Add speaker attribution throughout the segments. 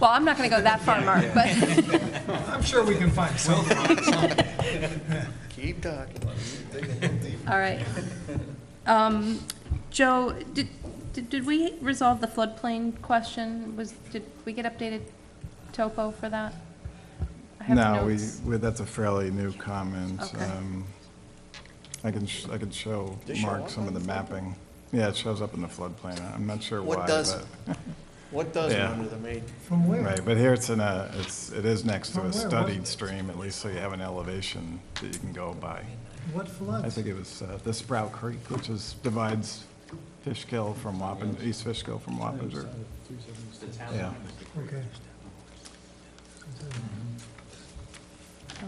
Speaker 1: Well, I'm not going to go that far, Mark, but,
Speaker 2: I'm sure we can find something.
Speaker 3: Keep talking.
Speaker 1: all right. Um, Joe, did, did did we resolve the floodplain question? Was, did we get updated topo for that? I have
Speaker 4: No, we,
Speaker 1: notes.
Speaker 4: we- that's a fairly new comment.
Speaker 1: Okay.
Speaker 4: Um, I can, sh- I can show
Speaker 3: Does it show
Speaker 4: Mark
Speaker 3: up
Speaker 4: some of the
Speaker 3: on the
Speaker 4: mapping. Yeah, it shows up in the floodplain. I'm not sure why,
Speaker 3: What does-
Speaker 4: but,
Speaker 3: What does
Speaker 4: Yeah.
Speaker 3: under the main?
Speaker 2: From where?
Speaker 4: right, but here it's in a, it's, it is next to
Speaker 2: From
Speaker 4: a
Speaker 2: where? What-
Speaker 4: studied stream, at least, so you have an elevation that you can go by.
Speaker 2: What
Speaker 4: I
Speaker 2: floods?
Speaker 4: think it was uh, the Sprout Creek, which is, divides Fishkill from Wappen, East Fishkill from Wappinger. Yeah.
Speaker 2: Okay.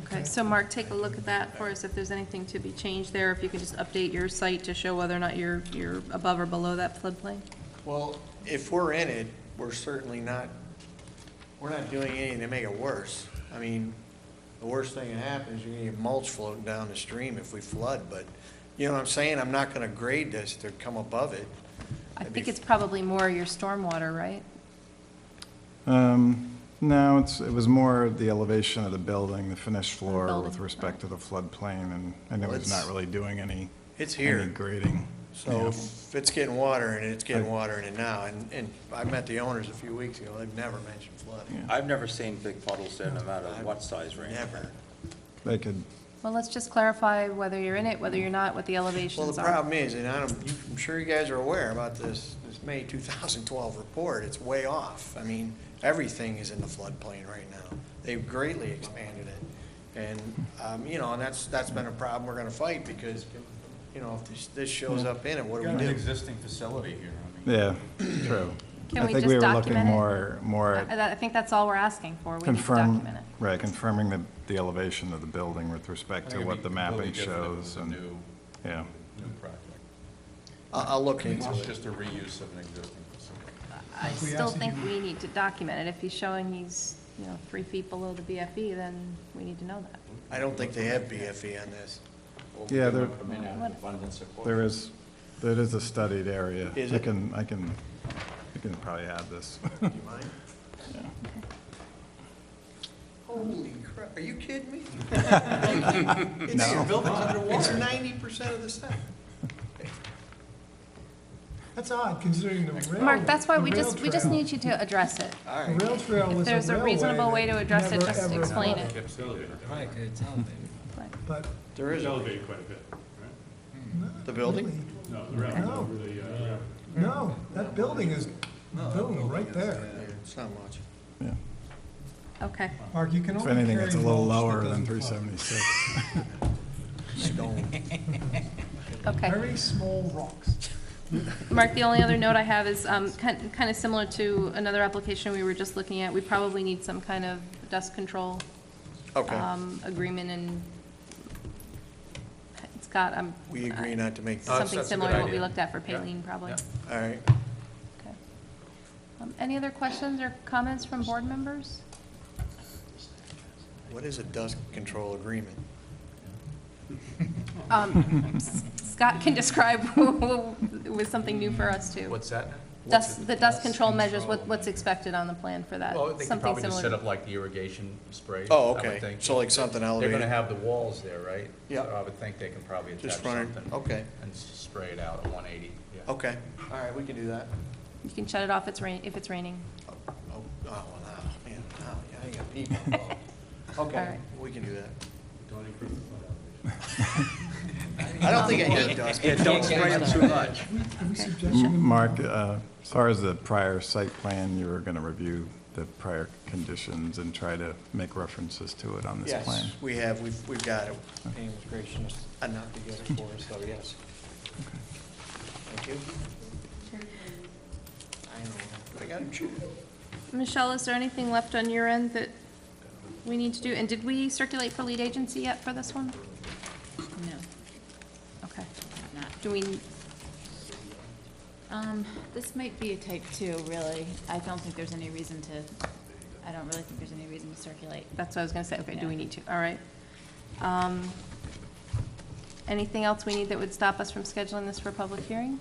Speaker 1: Okay, so Mark, take a look at that for us, if there's anything to be changed there, if you could just update your site to show whether or not you're, you're above or below that floodplain?
Speaker 3: Well, if we're in it, we're certainly not, we're not doing anything to make it worse. I mean, the worst thing that happens, you're gonna get mulch floating down the stream if we flood, but, you know what I'm saying? I'm not gonna grade this to come above it.
Speaker 1: I
Speaker 3: That'd be
Speaker 1: think it's probably more your stormwater, right?
Speaker 4: Um, No, it's, it was more the elevation of the building, the finished floor
Speaker 1: building,
Speaker 4: with respect to the floodplain, and, and it
Speaker 3: Well,
Speaker 4: was
Speaker 3: it's-
Speaker 4: not really doing any.
Speaker 3: It's here.
Speaker 4: Any grading.
Speaker 3: So if it's getting water in it, it's getting water in it now, and, and I met the owners a few weeks ago, they've never mentioned flooding.
Speaker 5: I've never seen big puddles there, no matter what size range.
Speaker 3: Never.
Speaker 4: They could,
Speaker 1: Well, let's just clarify whether you're in it, whether you're not, what the elevations are.
Speaker 3: Well, the problem is, and I don't, you- I'm sure you guys are aware about this, this May 2012 report, it's way off. I mean, everything is in the floodplain right now. They've greatly expanded it. And, um, you know, and that's, that's been a problem we're gonna fight because, you know, if this, this shows up in it, what do we
Speaker 5: Got an
Speaker 3: do?
Speaker 5: existing facility here, I mean.
Speaker 4: yeah, true.
Speaker 1: Can we
Speaker 4: I think
Speaker 1: just
Speaker 4: we were looking
Speaker 1: document it?
Speaker 4: more, more
Speaker 1: I
Speaker 4: at
Speaker 1: I- I think that's all we're asking for, we need to
Speaker 4: confirm,
Speaker 1: document it.
Speaker 4: right, confirming the, the elevation of the building with respect to what the mapping shows and,
Speaker 6: New,
Speaker 4: yeah.
Speaker 6: new project.
Speaker 3: I'll, I'll look into
Speaker 6: It's
Speaker 3: it.
Speaker 6: just a reuse of an existing facility.
Speaker 1: I
Speaker 2: we
Speaker 1: still
Speaker 2: asked if
Speaker 1: think
Speaker 2: you-
Speaker 1: we need to document it, if he's showing he's, you know, three feet below the BFE, then we need to know that.
Speaker 3: I don't think they have BFE on this.
Speaker 4: Yeah, there,
Speaker 5: Come in out of abundance of caution.
Speaker 4: there is, there is a studied area.
Speaker 3: Is
Speaker 4: I
Speaker 3: it?
Speaker 4: can, I can, I can probably add this.
Speaker 3: Do you mind? Holy crap, are you kidding me? It's, your building's underwater. It's 90% of the stuff.
Speaker 2: That's odd, considering the rail.
Speaker 1: Mark, that's why
Speaker 2: the
Speaker 1: we
Speaker 2: rail
Speaker 1: just, we just
Speaker 2: trail-
Speaker 1: need you to address it.
Speaker 3: All
Speaker 2: The
Speaker 3: right.
Speaker 2: rail trail
Speaker 1: If
Speaker 2: was a
Speaker 1: there's a
Speaker 2: railway
Speaker 1: reasonable way to
Speaker 2: that
Speaker 1: address it,
Speaker 2: never,
Speaker 1: just
Speaker 2: ever
Speaker 1: explain
Speaker 2: flooded.
Speaker 1: it.
Speaker 7: Right, it's elevated.
Speaker 2: But
Speaker 3: There is, a-
Speaker 8: elevated quite a bit, right?
Speaker 3: the building?
Speaker 8: No, the rail,
Speaker 2: No.
Speaker 8: the, uh, rail.
Speaker 2: No, that building is, boom, right there.
Speaker 3: Yeah, It's not much.
Speaker 4: Yeah.
Speaker 1: Okay,
Speaker 2: Mark, you can
Speaker 4: If
Speaker 2: only carry.
Speaker 4: anything, it's a little
Speaker 2: mulch that
Speaker 4: lower than
Speaker 2: doesn't flood.
Speaker 4: 376.
Speaker 3: Stone.
Speaker 1: okay.
Speaker 2: Very small rocks.
Speaker 1: Mark, the only other note I have is um, kind of similar to another application we were just looking at. We probably need some kind of dust control
Speaker 3: Okay.
Speaker 1: um, agreement and Scott, I'm.
Speaker 3: We agree not to make, all
Speaker 1: uh, Something similar to what we looked at for Payleen, probably.
Speaker 3: right.
Speaker 1: Okay. Um, Any other questions or comments from board members?
Speaker 3: What is a dust control agreement?
Speaker 1: Um, S- Scott can describe, it was something new for us too.
Speaker 7: What's that?
Speaker 1: Dust, the dust control measures,
Speaker 7: control
Speaker 1: what, what's expected on the plan for that?
Speaker 7: Well, they could
Speaker 1: Something
Speaker 7: probably just
Speaker 1: similar to-
Speaker 7: set up like the irrigation spray. I
Speaker 3: Oh,
Speaker 7: would
Speaker 3: okay.
Speaker 7: think.
Speaker 3: So like something
Speaker 7: They're gonna
Speaker 3: elevated?
Speaker 7: have the walls there, right?
Speaker 3: Yeah.
Speaker 7: So I would think they can probably attach
Speaker 3: Just run it,
Speaker 7: something.
Speaker 3: okay.
Speaker 7: And s- spray it out at one eighty, yeah.
Speaker 3: Okay. All right, we can do that.
Speaker 1: You can shut it off it's rain, if it's raining.
Speaker 3: Oh, oh, well, now, man, now, yeah, I got people involved.
Speaker 1: All
Speaker 3: Okay,
Speaker 1: right.
Speaker 3: we can do that.
Speaker 8: Don't increase the flood elevation.
Speaker 3: I don't think I had dust.
Speaker 5: Yeah, don't spray it too much.
Speaker 2: We suggest you
Speaker 4: Mark, uh, as far as the prior site plan, you were going to review the prior conditions and try to make references to it on this plan?
Speaker 3: Yes, we have, we've, we've got it. Pam was gracious enough to get it for us, so yes. Thank you. I know, but I got to chew.
Speaker 1: Michelle, is there anything left on your end that we need to do? And did we circulate for lead agency yet for this one?
Speaker 9: No,
Speaker 1: Okay.
Speaker 9: not,
Speaker 1: Do we,
Speaker 9: um, this might be a type two, really. I don't think there's any reason to, I don't really think there's any reason to circulate.
Speaker 1: that's what I was gonna say, okay, do we
Speaker 9: Yeah.
Speaker 1: need to, all right. Um, Anything else we need that would stop us from scheduling this for a public hearing?